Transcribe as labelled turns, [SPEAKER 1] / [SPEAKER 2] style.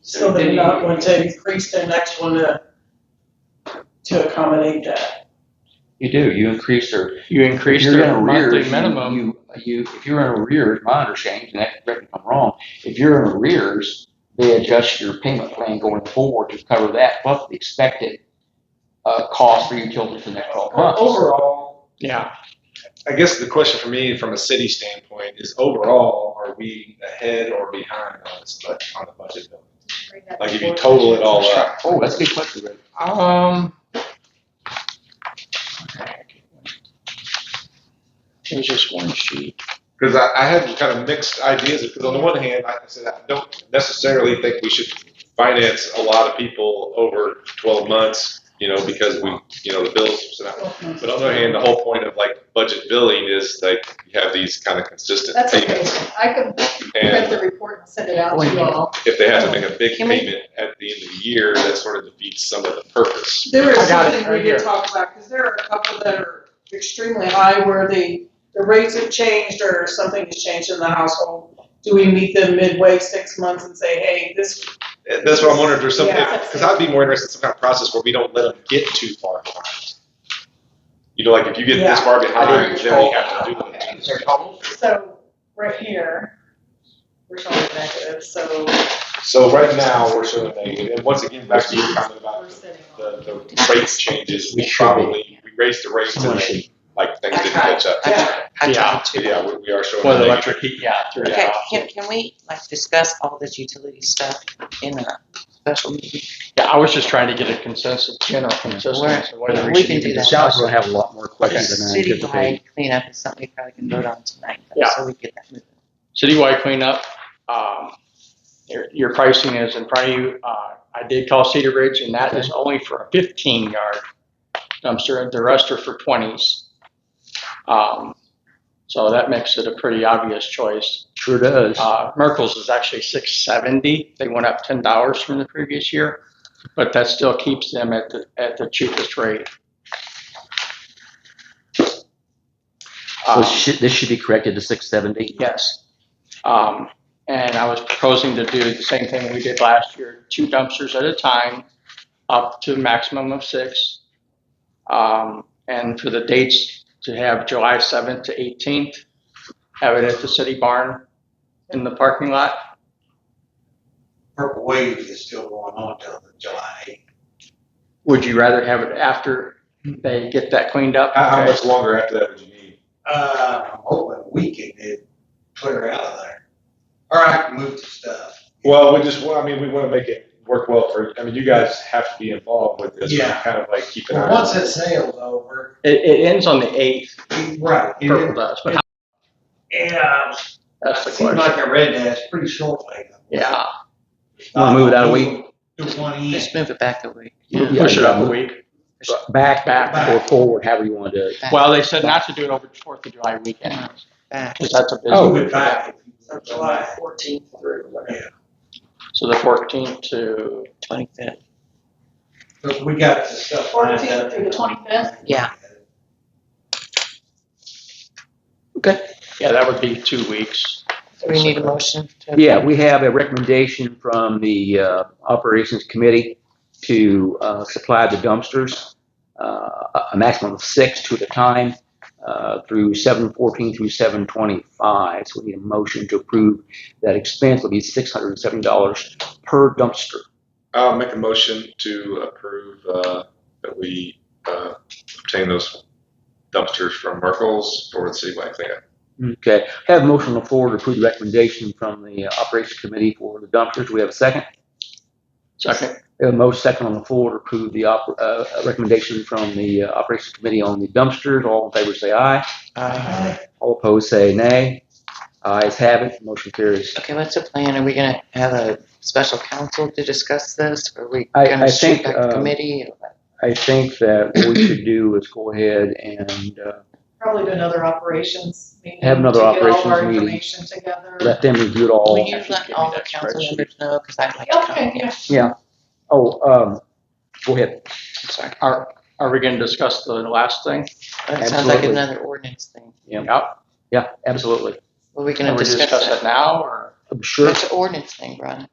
[SPEAKER 1] So they're not going to increase their next one to, to accommodate that.
[SPEAKER 2] You do, you increase their,
[SPEAKER 3] You
[SPEAKER 2] if
[SPEAKER 3] increase
[SPEAKER 2] you're in
[SPEAKER 3] their monthly
[SPEAKER 2] arrears,
[SPEAKER 3] minimum.
[SPEAKER 2] you, you, if you're in arrears, my understanding, and that, correct me if I'm wrong, if you're in arrears, they adjust your payment plan going forward to cover that plus the expected, uh, cost for utilities for the next twelve months.
[SPEAKER 1] Overall,
[SPEAKER 3] Yeah,
[SPEAKER 4] I guess the question for me, from a city standpoint, is overall, are we ahead or behind on this budget, on the budget bill? Like if you total it all up,
[SPEAKER 2] Oh, that's a good question, Rick.
[SPEAKER 3] um. There's just one sheet.
[SPEAKER 4] because I, I had kind of mixed ideas, because on the one hand, like I said, I don't necessarily think we should finance a lot of people over twelve months, you know, because we, you know, the bills, but on the other hand, the whole point of like budget billing is like, you have these kind of consistent
[SPEAKER 5] That's okay,
[SPEAKER 4] payments.
[SPEAKER 5] I can print
[SPEAKER 4] And
[SPEAKER 5] the report and send it out to you all.
[SPEAKER 4] if they have to make a big
[SPEAKER 3] Can we-
[SPEAKER 4] payment at the end of the year, that sort of defeats some of the purpose.
[SPEAKER 1] there
[SPEAKER 3] I
[SPEAKER 1] is
[SPEAKER 3] got it
[SPEAKER 1] something
[SPEAKER 3] right
[SPEAKER 1] we need
[SPEAKER 3] here.
[SPEAKER 1] to talk about, because there are a couple that are extremely high where the, the rates have changed or something has changed in the household. Do we meet them midway, six months and say, hey, this,
[SPEAKER 4] And That's what I'm wondering, if there's some,
[SPEAKER 1] Yeah.
[SPEAKER 4] because I'd be more interested in some kind of process where we don't let them get too far behind. You know, like if you get this
[SPEAKER 1] Yeah.
[SPEAKER 4] far behind,
[SPEAKER 1] Right.
[SPEAKER 4] then we have to do it.
[SPEAKER 2] Is there a couple?
[SPEAKER 5] So, right here, we're showing negative, so
[SPEAKER 4] So right now, we're showing negative, and once again, back to your comment
[SPEAKER 5] we're
[SPEAKER 4] about
[SPEAKER 5] sitting on.
[SPEAKER 4] the, the rates changes,
[SPEAKER 2] It
[SPEAKER 4] we
[SPEAKER 2] should be.
[SPEAKER 4] probably, we raised the rates
[SPEAKER 2] Someone
[SPEAKER 4] and
[SPEAKER 2] should-
[SPEAKER 4] like things didn't
[SPEAKER 6] Okay.
[SPEAKER 4] catch up.
[SPEAKER 1] yeah,
[SPEAKER 3] Yeah,
[SPEAKER 2] uh,
[SPEAKER 4] Yeah, we, we are showing.
[SPEAKER 3] for the
[SPEAKER 4] negative.
[SPEAKER 3] electric heat, yeah, through
[SPEAKER 6] Okay,
[SPEAKER 3] that.
[SPEAKER 6] can, can we like discuss all this utility stuff in a special meeting?
[SPEAKER 3] Yeah, I was just trying to get a consensus, general consensus. of whether
[SPEAKER 6] We
[SPEAKER 3] should
[SPEAKER 6] can
[SPEAKER 3] even
[SPEAKER 6] do that.
[SPEAKER 3] discuss
[SPEAKER 7] Sounds like we have a lot more questions than I anticipated.
[SPEAKER 6] Citywide cleanup is something we probably can vote on tonight, though,
[SPEAKER 3] Yeah.
[SPEAKER 6] so we get that moving.
[SPEAKER 3] citywide cleanup. Um, your, your pricing is in front of you. Uh, I did call Cedar Ridge and that is only for a fifteen yard dumpster. The rest are for twenties. Um, so that makes it a pretty obvious choice.
[SPEAKER 7] Sure does.
[SPEAKER 3] Uh, Merkel's is actually six seventy. They went up ten dollars from the previous year, but that still keeps them at the, at the cheapest rate.
[SPEAKER 7] So
[SPEAKER 3] Um,
[SPEAKER 7] should- This should be corrected to six seventy.
[SPEAKER 3] Yes. Um, and I was proposing to do the same thing we did last year, two dumpsters at a time, up to a maximum of six. Um, and for the dates, to have July seventh to eighteenth, have it at the city barn in the parking lot.
[SPEAKER 8] Purple Wave is still going on till the July eighth.
[SPEAKER 3] Would you rather have it after they get that cleaned up?
[SPEAKER 4] How, how much longer after that would you need?
[SPEAKER 8] Uh, I'm hoping we can get Twitter out of there. Or I can move the stuff.
[SPEAKER 4] Well, we just, well, I mean, we want to make it work well for, I mean, you guys have to be involved with this,
[SPEAKER 8] Yeah.
[SPEAKER 4] kind of like keep an eye
[SPEAKER 8] But
[SPEAKER 4] on.
[SPEAKER 8] once that sale's over,
[SPEAKER 3] It, it ends on the eighth,
[SPEAKER 8] right. it-
[SPEAKER 3] purple does, but how-
[SPEAKER 8] Yeah,
[SPEAKER 3] that's the
[SPEAKER 8] it uh, seems
[SPEAKER 3] question.
[SPEAKER 8] like I read that, it's pretty short lately.
[SPEAKER 3] Yeah,
[SPEAKER 7] Wanna move it out a week?
[SPEAKER 8] Do one in.
[SPEAKER 6] Just move it back a week.
[SPEAKER 3] push it up a week.
[SPEAKER 7] Back,
[SPEAKER 3] Back.
[SPEAKER 7] back, or forward, however you want to do it.
[SPEAKER 3] Well, they said not to do it over the Fourth of July weekend,
[SPEAKER 6] Back.
[SPEAKER 3] because that's a busy
[SPEAKER 7] Oh.
[SPEAKER 8] Move it back.
[SPEAKER 1] so July fourteenth through whatever.
[SPEAKER 3] So the 14th to,
[SPEAKER 6] Twenty-fifth,
[SPEAKER 8] But we got the stuff. lined up.
[SPEAKER 1] 14th through the
[SPEAKER 5] 25th?
[SPEAKER 6] Yeah.
[SPEAKER 3] yeah, that would be two weeks.
[SPEAKER 6] do we need a motion? to-
[SPEAKER 7] Yeah, we have a recommendation from the uh, Operations Committee to uh, supply the dumpsters, uh, a a maximum of six, two at a time, uh, through 714 through 725. So we need a motion to approve that expense will be $670 per dumpster.
[SPEAKER 4] I'll make a motion to approve uh, that we uh, obtain those dumpsters from Merkel's for the citywide cleanup.
[SPEAKER 7] Okay, have a motion on the floor to approve the recommendation from the uh, Operations Committee for the dumpsters. Do we have a second?
[SPEAKER 3] Second,
[SPEAKER 7] We have a motion second on the floor to approve the op- uh, recommendation from the uh, Operations Committee on the dumpsters. All in favor, say aye.
[SPEAKER 6] Uh,
[SPEAKER 7] All opposed say nay. Ayes have it, motion carries.
[SPEAKER 6] Okay, what's the plan? Are we gonna have a special council to discuss this, or are we
[SPEAKER 7] I-
[SPEAKER 6] gonna
[SPEAKER 7] I
[SPEAKER 6] shoot
[SPEAKER 7] think,
[SPEAKER 6] back to
[SPEAKER 7] um,
[SPEAKER 6] committee?
[SPEAKER 7] I think that what we should do is go ahead and uh,
[SPEAKER 5] Probably do another operations meeting.
[SPEAKER 7] Have another
[SPEAKER 5] to get all of our
[SPEAKER 7] operations meeting.
[SPEAKER 5] Information together.
[SPEAKER 7] let them review it
[SPEAKER 6] Will
[SPEAKER 7] all.
[SPEAKER 6] you
[SPEAKER 3] Actually,
[SPEAKER 6] let
[SPEAKER 3] give me
[SPEAKER 6] all the
[SPEAKER 3] that
[SPEAKER 6] council
[SPEAKER 3] spreadsheet.
[SPEAKER 6] members know, because I'd like to come,
[SPEAKER 5] Okay, yeah.
[SPEAKER 7] Oh, um, go ahead.
[SPEAKER 6] I'm sorry.
[SPEAKER 3] are, are we going to discuss the last thing?
[SPEAKER 6] That sounds like
[SPEAKER 7] Absolutely.
[SPEAKER 6] another ordinance thing.
[SPEAKER 3] Yep.
[SPEAKER 7] Yeah, absolutely.
[SPEAKER 6] Were we gonna
[SPEAKER 3] Can we
[SPEAKER 6] discuss
[SPEAKER 3] discuss
[SPEAKER 6] that?
[SPEAKER 3] it now, or?
[SPEAKER 7] I'm sure.
[SPEAKER 6] That's an ordinance thing, Brian.